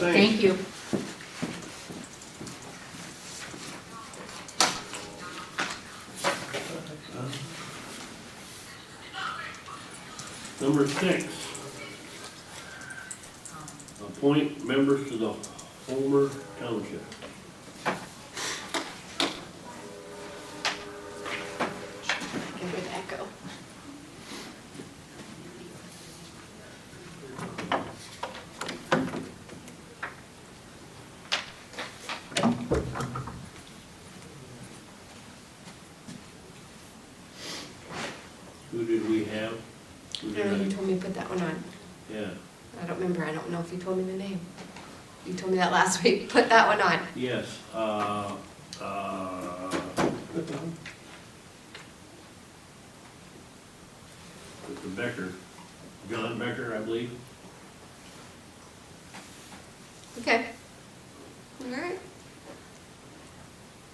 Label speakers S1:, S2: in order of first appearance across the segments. S1: Thank you.
S2: Number six. Appoint members to the Homer Township.
S3: Give it an echo.
S2: Who did we have? Who
S3: I know you
S2: did I-
S3: told me to put that one on.
S2: Yeah,
S3: I don't remember, I don't know if you told me the name. You told me that last week, put that one on.
S2: yes, uh, uh. Mr. Becker, John Becker, I believe.
S3: Okay. All right.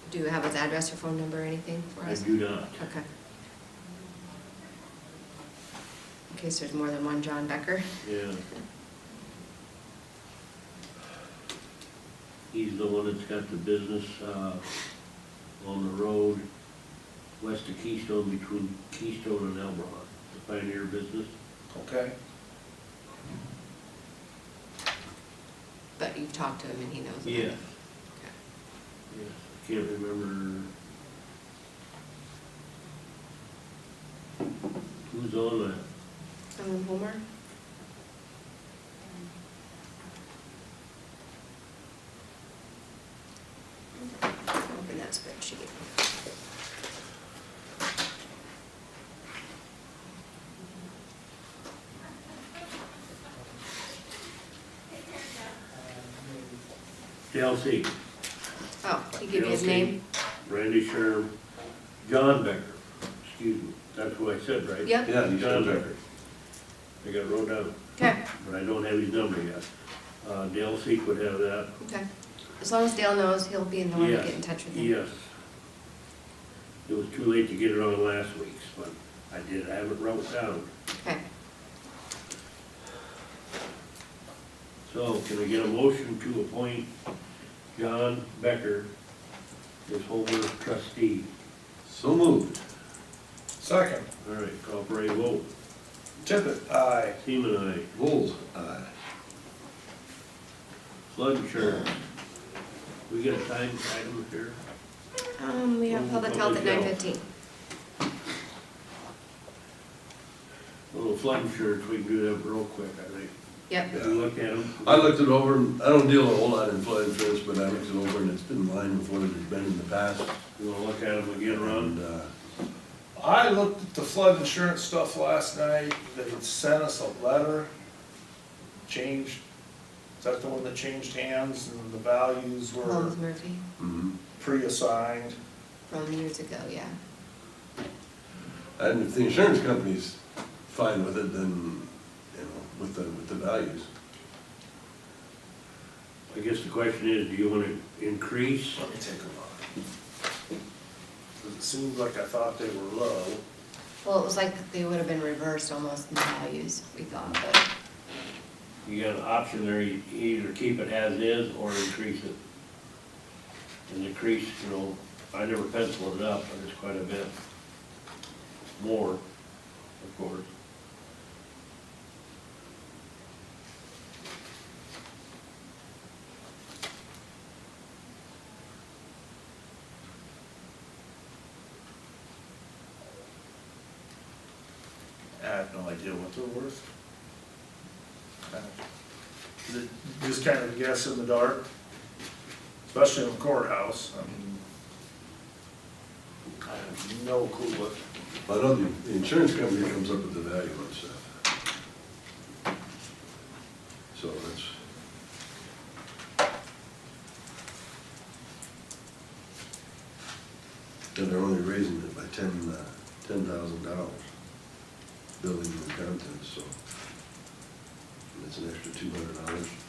S3: Do you have his address or phone number or anything for
S2: I
S3: us?
S2: do not.
S3: Okay. In case there's more than one John Becker.
S2: Yeah. He's the one that's got the business, uh, on the road west of Keystone, between Keystone and Elbron, the Pioneer Business.
S4: Okay,
S3: But you've talked to him and he knows. about it.
S2: Yes. Yes, I can't remember. Who's on that?
S3: Ellen Homer? Open that spreadsheet.
S2: DLC,
S3: Oh, he gave you his
S2: DLC.
S3: name?
S2: Randy Sherm, John Becker, excuse me, that's what I said, right?
S3: Yep.
S4: yeah, you
S2: John
S4: should
S2: Becker. I got it wrote down.
S3: Okay,
S2: but I don't have his number yet. Uh, Dale Seek would have that,
S3: okay. As long as Dale knows, he'll be in the one to
S2: Yeah,
S3: get in touch with him.
S2: yes. It was too late to get it on last week's, but I did, I have it wrote down.
S3: Okay.
S2: So can we get a motion to appoint John Becker as Homer trustee?
S4: So moved. Second.
S2: All right, call for a vote.
S4: Tippit, aye.
S2: Seaman, aye.
S4: Bulls, aye.
S2: Flood insurance. We get a time item here?
S3: Um, we have public health at nine fifteen.
S2: A little flood insurance, we can do that real quick, I think.
S3: Yep,
S2: Have you looked at them?
S4: I looked it over, and I don't deal a whole lot in flood insurance, but I looked it over and it's been in line with what it has been in the past.
S2: You wanna look at them again, Ron?
S4: And, uh,
S5: I looked at the flood insurance stuff last night, they had sent us a letter, changed, is that the one that changed hands and the values were
S3: Holmes Murphy,
S4: mhm.
S5: pre-assigned?
S3: from years ago, yeah.
S4: and if the insurance company's fine with it, then, you know, with the, with the values.
S2: I guess the question is, do you want to increase?
S5: Let me take a look. 'Cause It seemed like I thought they were low.
S3: Well, it was like they would have been reversed almost in the values, we thought, but.
S2: You got an option there, you either keep it as is or increase it. And increase, you know, I never penciled it up, but it's quite a bit more, of course.
S5: I have no idea what they're worth. Kind of- the- Uh, Just kind of guess in the dark, especially in the courthouse, I mean, I have no clue what
S4: But I know the, the insurance company comes up with the value and stuff. So that's, then they're only raising it by ten, uh, ten thousand dollars, building and contents, so. And it's an extra two hundred dollars.